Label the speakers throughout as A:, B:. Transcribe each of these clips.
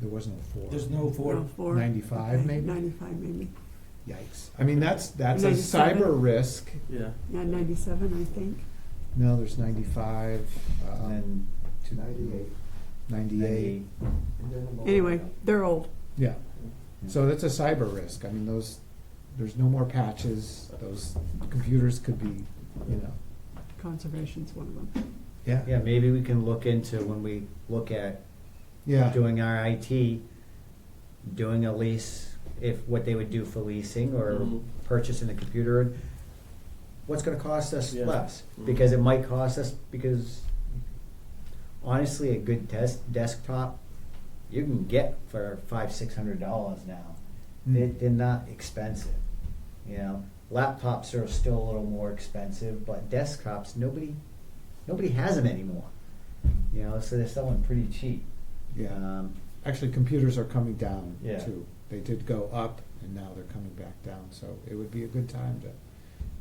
A: there was no four.
B: There's no
C: No,
B: four.
C: four.
A: 95
C: Okay,
A: maybe?
C: Ninety-five maybe.
A: Yikes. I mean, that's, that's a
C: 97.
A: cyber risk.
B: Yeah.
C: Yeah, ninety-seven, I think.
A: No, there's ninety-five,
D: And
A: um,
D: then two ninety-eight.
A: ninety-eight,
D: And then I'm all
C: Anyway,
D: done.
C: they're old.
A: yeah.
D: Yeah.
A: So that's a cyber risk. I mean, those, there's no more patches. Those computers could be, you know,
C: Conservation's one of them.
A: yeah.
D: Yeah, maybe we can look into when we look at
A: Yeah.
D: doing our IT, doing a lease, if, what they would do for leasing or
B: Mhm.
D: purchasing the computer. What's gonna cost us
B: Yeah.
D: less?
B: Mhm.
D: Because it might cost us, because honestly, a good desk, desktop, you can get for five, six hundred dollars now. They,
A: Mm.
D: they're not expensive, you know? Laptops are still a little more expensive, but desktops, nobody, nobody has them anymore. You know, so they're selling pretty cheap.
A: Yeah.
D: Um,
A: Actually, computers are coming down
D: Yeah.
A: too. They did go up and now they're coming back down. So it would be a good time to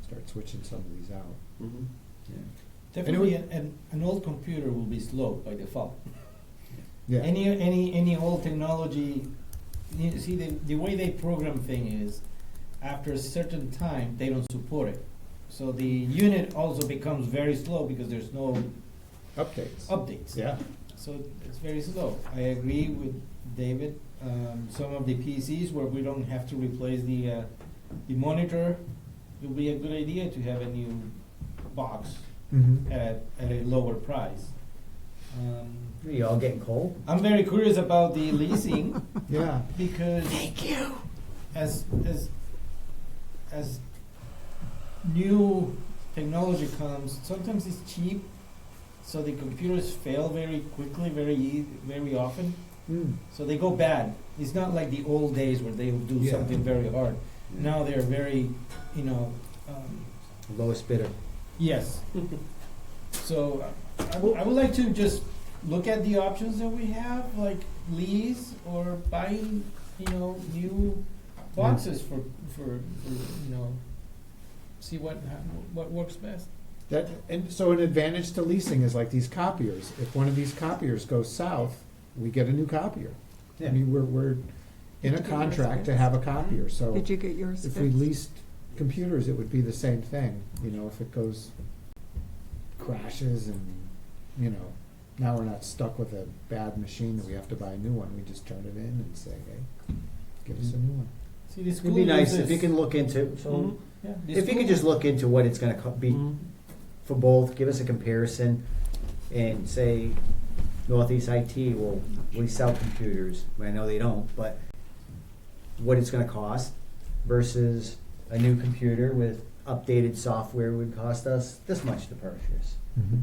A: start switching some of these out.
B: Mhm.
A: Anyone-
B: Definitely, an, an, an old computer will be slow by default.
A: Yeah.
B: Any, any, any old technology, you see, the, the way they program thing is, after a certain time, they don't support it. So the unit also becomes very slow because there's no
A: Updates.
B: updates.
A: Yeah.
B: So it's very slow. I agree with David. Um, some of the PCs where we don't have to replace the, uh, the monitor, it would be a good idea to have a new box
A: Mm-hmm.
B: at, at a lower price. Um,
D: Are you all getting cold?
B: I'm very curious about the leasing
A: Yeah.
B: because
C: Thank you.
B: as as as new technology comes, sometimes it's cheap, so the computers fail very quickly, very ea- very often.
A: Mm.
B: So they go bad. It's not like the old days where they would do
A: Yeah.
B: something very hard.
A: Yeah.
B: Now they're very, you know, um,
D: Lowest bidder.
B: yes. so uh, I would- I would like to just look at the options that we have, like lease or buying, you know, new boxes for, for, for you know, see what ha- what works best.
A: That, and so an advantage to leasing is like these copiers. If one of these copiers goes south, we get a new copier. I mean, we're, we're in a
C: Did you get yours
A: contract to
C: fixed?
A: have a copier, so
C: Did you get yours
A: if we
C: fixed?
A: leased computers, it would be the same thing, you know, if it goes, crashes and, you know, now we're not stuck with a bad machine that we have to buy a new one, we just turn it in and say, hey, give us a new one.
B: See, the school
D: It'd be nice
B: uses,
D: if you can look into, so,
B: yeah, the
D: if you
B: school-
D: could just look into what it's gonna co- be
B: Mhm.
D: for both, give us a comparison, and say, Northeast IT will, we sell computers, I know they don't, but what it's gonna cost versus a new computer with updated software would cost us this much to purchase.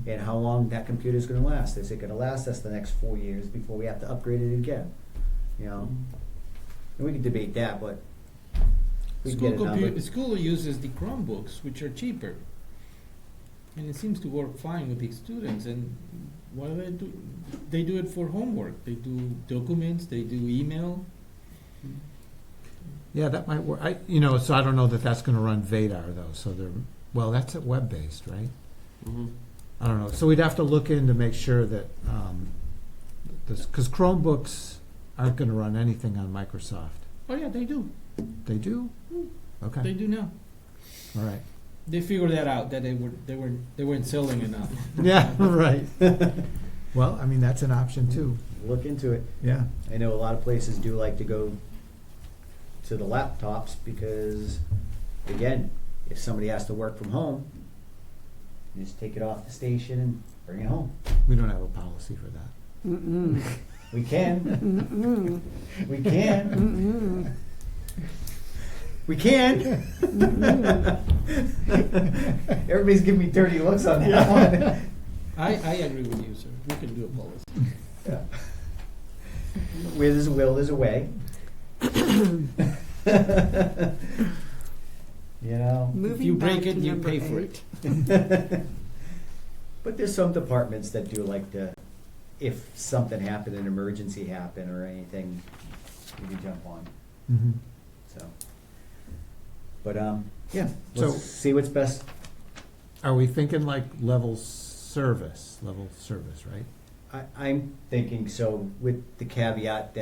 D: and how long that computer's gonna last. Is it gonna last us the next four years before we have to upgrade it again? You know, and we can debate that, but we can
B: School
D: get a number.
B: computer, school uses the Chromebooks, which are cheaper. And it seems to work fine with the students and what do they do? They do it for homework, they do documents, they do email.
A: Yeah, that might work, I, you know, so I don't know that that's gonna run Vadar though, so they're, well, that's at web-based, right? I don't know. So we'd have to look in to make sure that um, this because Chromebooks aren't going to run anything on Microsoft.
B: Oh yeah, they do,
A: They do. Okay.
B: they do now.
A: All right.
B: They figured that out, that they were, they were, they weren't selling enough.
A: Yeah. Right. well, I mean that's an option too.
D: Look into it.
A: Yeah.
D: I know a lot of places do like to go to the laptops because, again, if somebody has to work from home, you just take it off the station and bring it home.
A: We don't have a policy for that.
C: Mm-mm,
D: We can,
C: Mm-hmm. mm-mm,
D: we can,
C: mm-mm,
D: we can.
C: mm-mm.
D: Everybody's giving me dirty looks on that one.
B: I, I agree with you, sir, we can do a policy.
D: Where there's a will, there's a way. you know,
B: If you
C: Moving
B: break
C: back to
B: it, you
C: number
B: pay for it.
C: eight.
D: but there's some departments that do like the, if something happened, an emergency happened or anything, you can jump on.
A: Mm-hmm.
D: So, but um, yeah,
A: So-
D: let's see what's best.
A: Are we thinking like level service? Level service, right?
D: I, I'm thinking so with the caveat that.